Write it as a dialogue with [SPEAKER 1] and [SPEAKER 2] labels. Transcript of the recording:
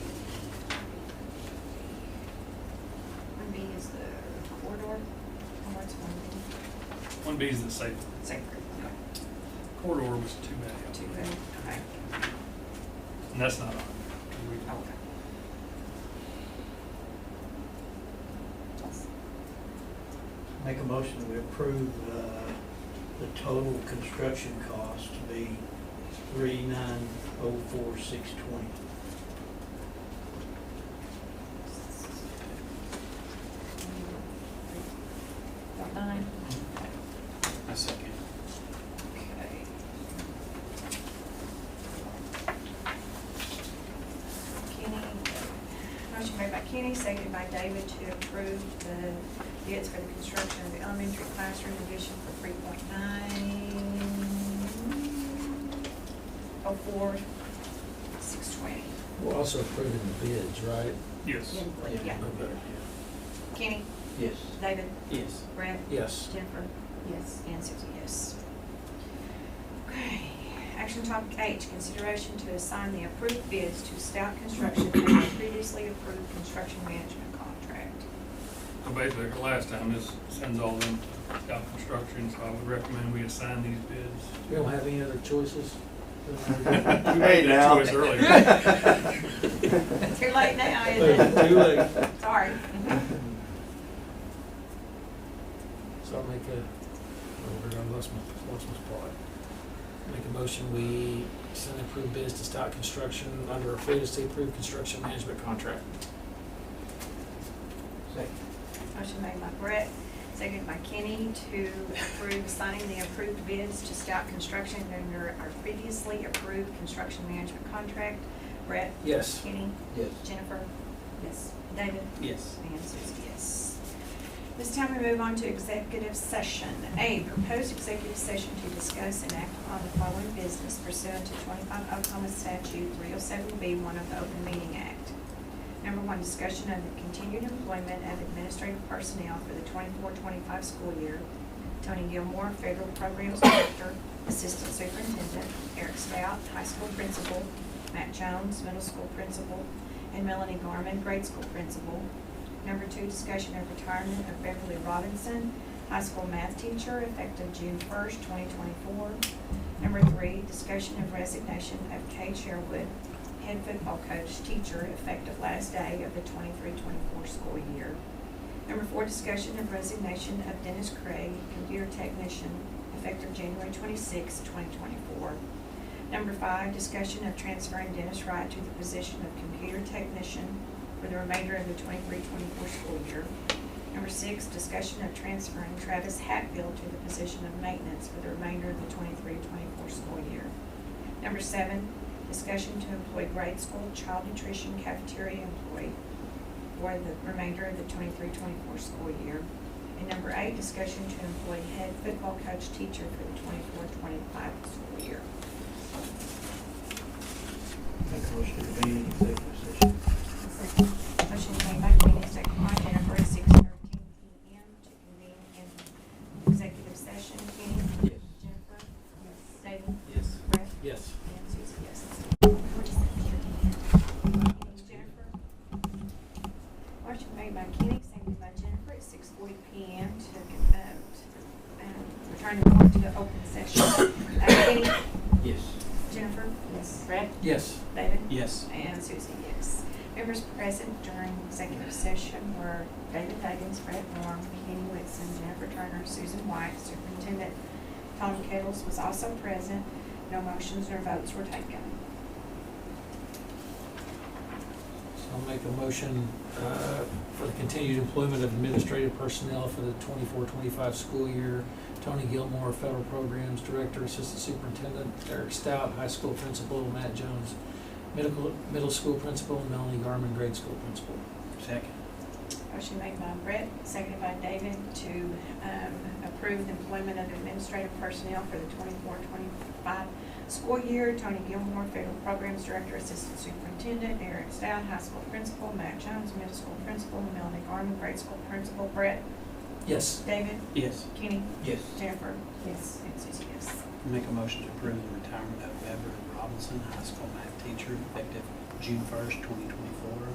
[SPEAKER 1] One B is the safe
[SPEAKER 2] Same group, okay.
[SPEAKER 1] corridor was too many.
[SPEAKER 2] Two,
[SPEAKER 1] of them.
[SPEAKER 2] okay,
[SPEAKER 1] And that's not on. there.
[SPEAKER 2] oh, okay. Yes.
[SPEAKER 3] Make a motion that we approve uh, the total construction cost to be three nine oh four six twenty.
[SPEAKER 2] About nine,
[SPEAKER 4] A second.
[SPEAKER 2] okay. Kenny, motion made by Kenny, seconded by David to approve the bids for the construction of the elementary classroom addition for three point nine oh four six twenty.
[SPEAKER 5] We're also approving the bids, right?
[SPEAKER 1] Yes.
[SPEAKER 2] Yeah,
[SPEAKER 5] Okay.
[SPEAKER 2] Kenny,
[SPEAKER 3] Yes.
[SPEAKER 2] David,
[SPEAKER 4] Yes.
[SPEAKER 2] Brett,
[SPEAKER 5] Yes.
[SPEAKER 2] Jennifer? Yes. And Susie, yes. Okay, action topic H, consideration to assign the approved bids to Stout Construction for the previously approved construction management contract.
[SPEAKER 1] So basically, the last time, this sends all them to Scout Construction, so I would recommend we assign these bids.
[SPEAKER 5] We don't have any other choices?
[SPEAKER 1] We made
[SPEAKER 4] Hey,
[SPEAKER 1] that
[SPEAKER 4] now.
[SPEAKER 1] choice earlier.
[SPEAKER 2] Too late now, isn't it?
[SPEAKER 5] Too late.
[SPEAKER 2] Sorry.
[SPEAKER 5] So I'll make a, oh, we're gonna lose my, lost my spot. Make a motion, we send approved bids to Stout Construction under a previously approved construction management contract.
[SPEAKER 3] Second.
[SPEAKER 2] Motion made by Brett, seconded by Kenny to approve signing the approved bids to Stout Construction under our previously approved construction management contract. Brett,
[SPEAKER 5] Yes.
[SPEAKER 2] Kenny,
[SPEAKER 3] Yes.
[SPEAKER 2] Jennifer? Yes. David?
[SPEAKER 4] Yes.
[SPEAKER 2] And Susie, yes. This time we move on to executive session. A, proposed executive session to discuss and act upon the following business pursuant to twenty-five Oklahoma statute three oh seven B, one of the Open Meeting Act. Number one, discussion of the continued employment of administrative personnel for the 24-25 school year. Tony Gilmore, Federal Programs Director, Assistant Superintendent, Eric Stout, High School Principal, Matt Jones, Middle School Principal, and Melanie Garman, Grade School Principal, Number two, discussion of retirement of Beverly Robinson, high school math teacher, effective June first, twenty twenty-four. Number three, discussion of resignation of Kay Sherwood, head football coach, teacher, effective last day of the 23-24 school year. Number four, discussion of resignation of Dennis Craig, computer technician, effective January 26, twenty twenty-four. Number five, discussion of transferring Dennis Wright to the position of computer technician for the remainder of the 23-24 school year. Number six, discussion of transferring Travis Hatfield to the position of maintenance for the remainder of the 23-24 school year. Number seven, discussion to employ grade school child nutrition cafeteria employee for the remainder of the 23-24 school year. And number eight, discussion to employ head football coach teacher for the 24-25 school year.
[SPEAKER 3] Make a motion to be in executive session.
[SPEAKER 2] Motion made by Kenny, second by Jennifer, six thirteen P M to convene in executive session. Kenny?
[SPEAKER 4] Yes.
[SPEAKER 2] Jennifer? Yes. David?
[SPEAKER 4] Yes.
[SPEAKER 2] Brett?
[SPEAKER 5] Yes.
[SPEAKER 2] And Susie, yes. Jennifer? Motion made by Kenny, seconded by Jennifer, at six forty P M to, um, to, um, return the board to the open session. Uh, Kenny?
[SPEAKER 4] Yes.
[SPEAKER 2] Jennifer? Yes. Brett?
[SPEAKER 5] Yes.
[SPEAKER 2] David?
[SPEAKER 4] Yes.
[SPEAKER 2] And Susie, yes. Members present during executive session were David Huggins, Brett Norm, Kenny Whitson, Jennifer Turner, Susan White, Superintendent Tom Kettles was also present. No motions or votes were taken.
[SPEAKER 5] So I'll make a motion, uh, for the continued employment of administrative personnel for the 24-25 school year. Tony Gilmore, Federal Programs Director, Assistant Superintendent, Eric Stout, High School Principal, Matt Jones, Middle, Middle School Principal, and Melanie Garman, Grade School Principal.
[SPEAKER 4] Second.
[SPEAKER 2] Motion made by Brett, seconded by David to um, approve the employment of administrative personnel for the 24-25 school year. Tony Gilmore, Federal Programs Director, Assistant Superintendent, Eric Stout, High School Principal, Matt Jones, Middle School Principal, Melanie Garman, Grade School Principal, Brett,
[SPEAKER 5] Yes.
[SPEAKER 2] David,
[SPEAKER 4] Yes.
[SPEAKER 2] Kenny,
[SPEAKER 4] Yes.
[SPEAKER 2] Jennifer. Yes. And Susie, yes.
[SPEAKER 4] Make a motion to approve the retirement of Beverly Robinson, high school math teacher, effective June first, twenty twenty-four.